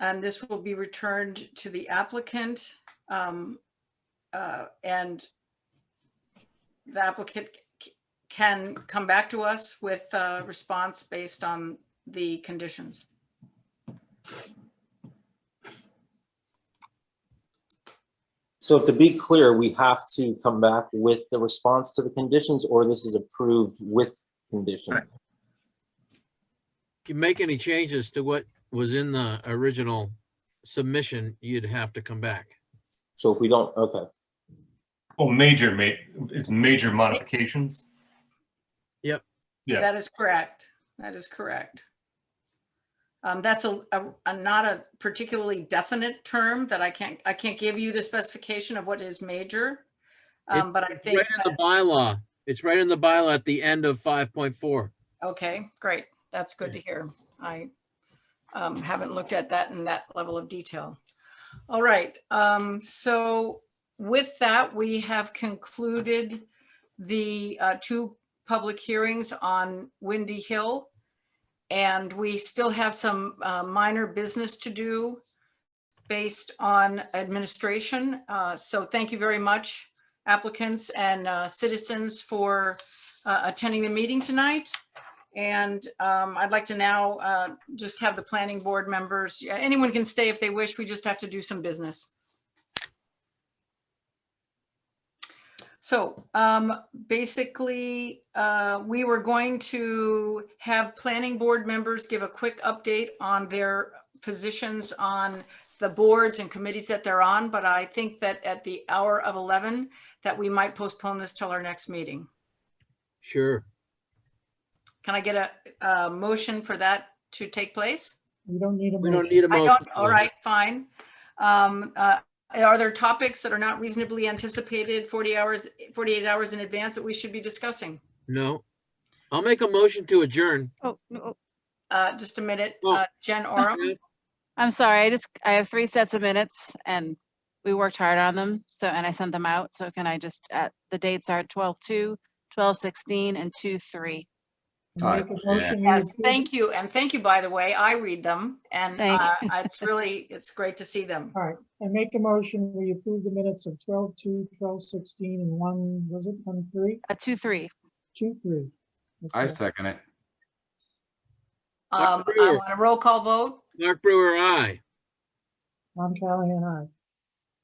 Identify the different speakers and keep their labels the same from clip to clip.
Speaker 1: And Um, this will be returned to the applicant. um, uh, And the applicant c- can come back to us with a response based on the conditions.
Speaker 2: So to be clear, we have to come back with the response to the conditions, or this is approved with condition?
Speaker 3: Right.
Speaker 4: you make any changes to what was in the original submission, you'd have to come back.
Speaker 2: So if we don't, okay,
Speaker 3: Well, major ma- it's major modifications. Yeah.
Speaker 1: That is correct. That is correct. Um, that's a, a- a, not a particularly definite term that I can't, I can't give you the specification of what is major. Um, but I
Speaker 4: Right
Speaker 1: think,
Speaker 4: in the bylaw. It's right in the bylaw at the end of five point four.
Speaker 1: okay, great. That's good to hear. I um, haven't looked at that in that level of detail. All right, um, so with that, we have concluded the uh, two public hearings on Windy Hill. And we still have some uh, minor business to do based on administration. Uh, So thank you very much applicants and uh, citizens for uh, attending the meeting tonight. And um, I'd like to now uh, just have the planning board members, yeah, anyone can stay if they wish, we just have to do some business. So um, basically, uh, we were going to have planning board members give a quick update on their positions on the boards and committees that they're on, but I think that at the hour of 11, that we might postpone this till our next meeting.
Speaker 4: Sure.
Speaker 1: Can I get a, a motion for that to take place?
Speaker 5: We don't need a
Speaker 4: We don't
Speaker 5: motion.
Speaker 4: need a
Speaker 1: I
Speaker 4: motion.
Speaker 1: don't, all right, fine. Um, uh, are there topics that are not reasonably anticipated forty hours, forty-eight hours in advance that we should be discussing?
Speaker 4: No. I'll make a motion to adjourn.
Speaker 6: Oh, no,
Speaker 1: Uh, just a minute,
Speaker 4: Oh.
Speaker 1: uh, Jen Oram,
Speaker 6: I'm sorry. I just, I have three sets of minutes and we worked hard on them. So, and I sent them out. So can I just, uh, the dates are 12, 2, 12, 16 and 2, 3.
Speaker 3: Aye.
Speaker 5: Make a motion, we
Speaker 1: yes,
Speaker 5: approve-
Speaker 1: thank you, and thank you, by the way, I read them, and,
Speaker 6: Thank
Speaker 1: uh, it's really, it's great to see them.
Speaker 5: All right, I make a motion, we approve the minutes of 12, 2, 12, 16, and 1, was it 1, 3?
Speaker 6: Uh, 2, 3.
Speaker 5: 2, 3.
Speaker 7: I
Speaker 5: Okay.
Speaker 7: second it.
Speaker 1: Um,
Speaker 4: Dr.
Speaker 1: I
Speaker 4: Brewer.
Speaker 1: want a roll call vote,
Speaker 4: Mark Brewer, aye.
Speaker 5: Tom Callahan, aye.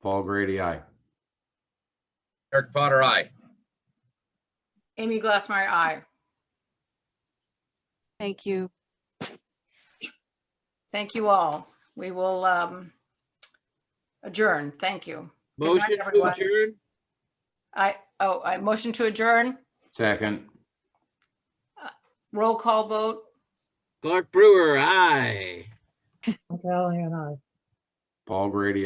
Speaker 7: Paul Grady, aye.
Speaker 8: Eric Potter, aye.
Speaker 1: Amy Glassmeyer, aye.
Speaker 6: Thank you.
Speaker 1: Thank you all. We will um, adjourn. Thank you. Good night,
Speaker 4: Motion to
Speaker 1: everyone.
Speaker 4: adjourn.
Speaker 1: I, oh, I motion to adjourn,
Speaker 7: Second,
Speaker 1: roll call vote.
Speaker 4: Clark Brewer, aye.
Speaker 5: Tom Callahan, aye.
Speaker 7: Paul Grady,